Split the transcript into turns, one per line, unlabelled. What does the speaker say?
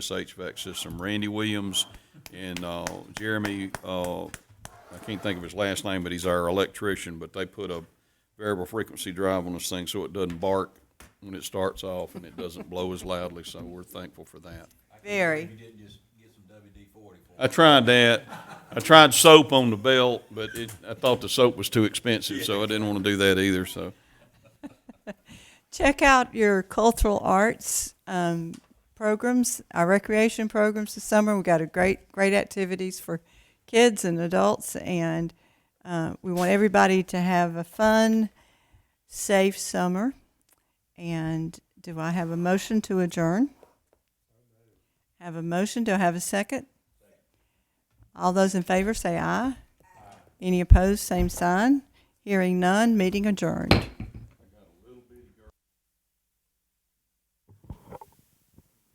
this HVAC system. Randy Williams and uh, Jeremy, uh, I can't think of his last name, but he's our electrician, but they put a variable frequency drive on this thing so it doesn't bark when it starts off and it doesn't blow as loudly, so we're thankful for that.
Very.
I tried that. I tried soap on the belt, but it, I thought the soap was too expensive, so I didn't want to do that either, so.
Check out your cultural arts um, programs, our recreation programs this summer. We've got a great, great activities for kids and adults, and uh, we want everybody to have a fun, safe summer. And do I have a motion to adjourn? Have a motion? Do I have a second? All those in favor say aye. Any opposed? Same sign. Hearing none, meeting adjourned.